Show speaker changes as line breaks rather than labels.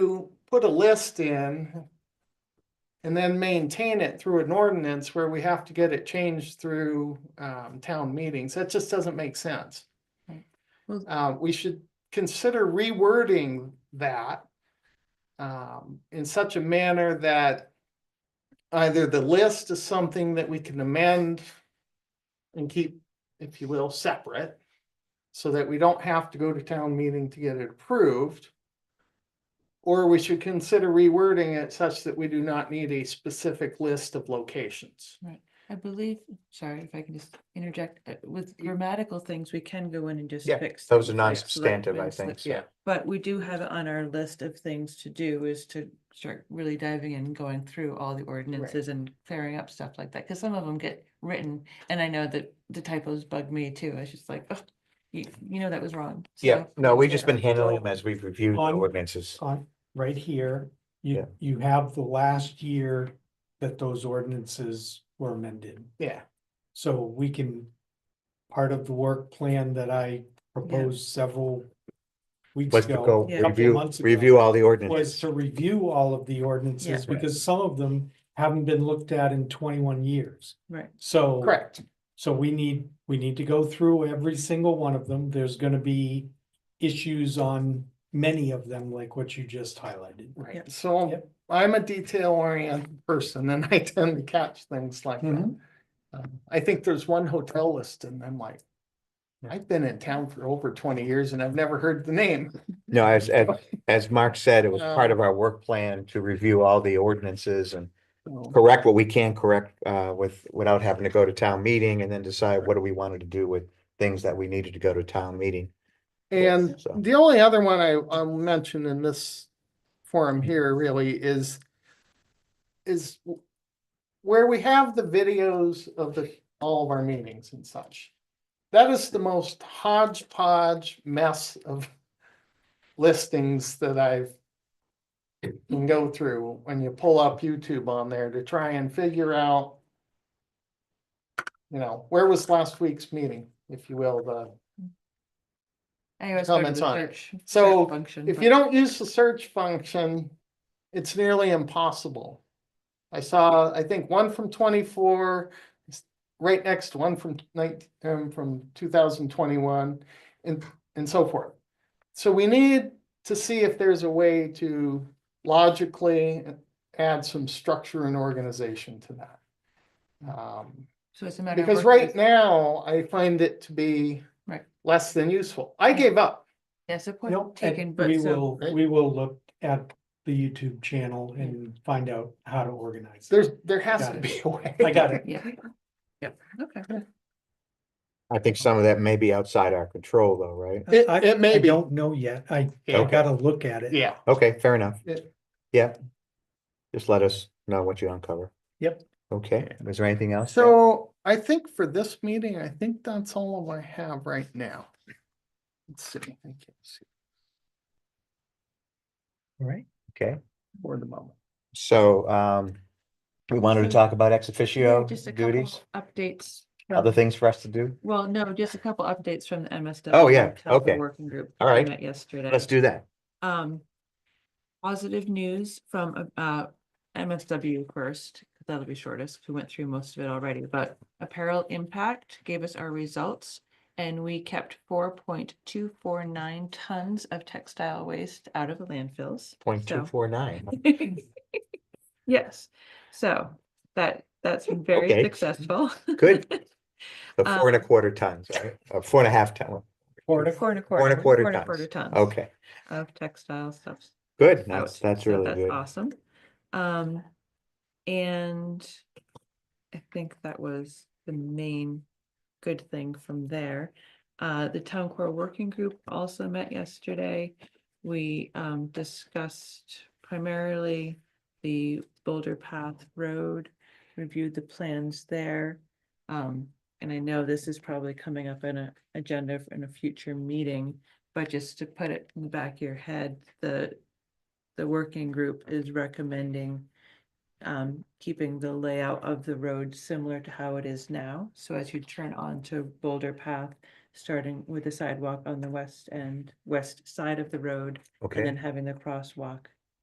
to put a list in and then maintain it through an ordinance where we have to get it changed through um town meetings. That just doesn't make sense.
Right. Well-
Uh, we should consider rewording that um in such a manner that either the list is something that we can amend and keep, if you will, separate so that we don't have to go to town meeting to get it approved. Or we should consider rewording it such that we do not need a specific list of locations.
I believe, sorry if I can just interject, uh, with grammatical things, we can go in and just
Yeah,
fix.
those are
things like
non-substantive, I
selectmen,
think,
select-
so.
yeah.
But we do have it on our list of things to do is to start really diving in, and going through all the ordinances and clearing up stuff like that, because some of them get written. And I know that the typos bug me too. I was just like, oh, you, you know, that was wrong.
Yeah,
so-
no, we've just
Yeah.
been handling them as we've reviewed the
On-
ordinances.
on, right here,
Yeah.
you, you have the last year that those ordinances were amended.
Yeah,
So we can, part of the work plan that I proposed several weeks
Was to
ago
go
Yeah.
couple
review,
months ago,
review all the
was
ordinances.
to review all of the ordinances
Yeah.
because some of them haven't been looked at in twenty-one years.
Right,
So.
correct.
So we need, we need to go through every single one of them. There's gonna be issues on many of them, like what you just highlighted.
Right.
Yep.
So
Yep.
I'm a detail oriented person and I tend to catch things like that. Um, I think there's one hotel list and I'm like,
Yeah.
I've been in town for over twenty years and I've never heard the name.
No, as, as, as Mark said, it was
No.
part of our work plan to review all the ordinances and
So,
correct what we can correct, uh, with, without having to go to town meeting and then decide what do we wanted to do with things that we needed to go to town meeting.
And
So-
the only other one I, I'll mention in this forum here really is, is w- where we have the videos of the, all of our meetings and such. That is the most hodgepodge mess of listings that I've can go through when you pull up YouTube on there to try and figure out you know, where was last week's meeting, if you will, the
I always go to the
Comments on it.
search. search
So,
function,
If
but-
you don't use the search function, it's nearly impossible. I saw, I think, one from twenty-four, s- right next to one from nineteen, um, from two thousand twenty-one, and, and so forth. So we need to see if there's a way to logically add some structure and organization to that. Um,
So it's a matter. of
because
working
right
with-
now, I find it to be
Right.
less than useful. I gave up.
Yes, a
Nope,
point taken,
and
but
We
so.
will, we will look at the YouTube channel and find out how to organize. it.
There's, there has
Got
to
it.
be a way.
I got it.
Yeah. Yep, okay.
I think some of that may be outside our control though, right?
It-
I-
it may
I
be.
Don't know yet. I, I
Okay.
gotta look at it.
Yeah.
Okay, fair enough.
Yeah.
Yeah. Just let us know what you uncover.
Yep.
Okay, was there anything else? that-
So I think for this meeting, I think that's all I have right now. Let's see, I can't see
All right.
Okay.
for the moment.
So, um, we wanted to
So-
talk about ex
Yeah,
officio
Just a couple Mm.
duties,
Updates. from-
other things for us to do.
Well, no, just a couple updates from the MSW.
Oh, yeah,
Health
okay.
Working group.
All
that we
right.
met Yesterday.
Let's do that.
Um, positive news from, uh, MSW first, 'cause that'll be shortest, 'cause we went through most of it already, but Apparel Impact gave us our results. And we kept four point two four nine tons of textile waste out of the landfills.
Point two
so-
four nine.
Yes, so that, that's been very
Okay.
successful.
Good. So
Uh,
four and a quarter tons, right? Uh, Four and a half ton.
Or if-
Four and a quarter.
Four and a quarter
and a
tons.
quarter tons
Okay,
Of textile stuffs.
good.
out,
That's, that's
so
really
that's
good.
Awesome. Um, and I think that was the main good thing from there. Uh, the town core working group also met yesterday. We, um, discussed primarily the Boulder Path Road, reviewed the plans there. Um, and I know this is probably coming up in a agenda for- in a future meeting, but just to put it in the back of your head, the the working group is recommending um, keeping the layout of the road similar to how it is now. So as you turn onto Boulder Path, starting with the sidewalk on the west end, west side of the road, and
Okay,
then having the crosswalk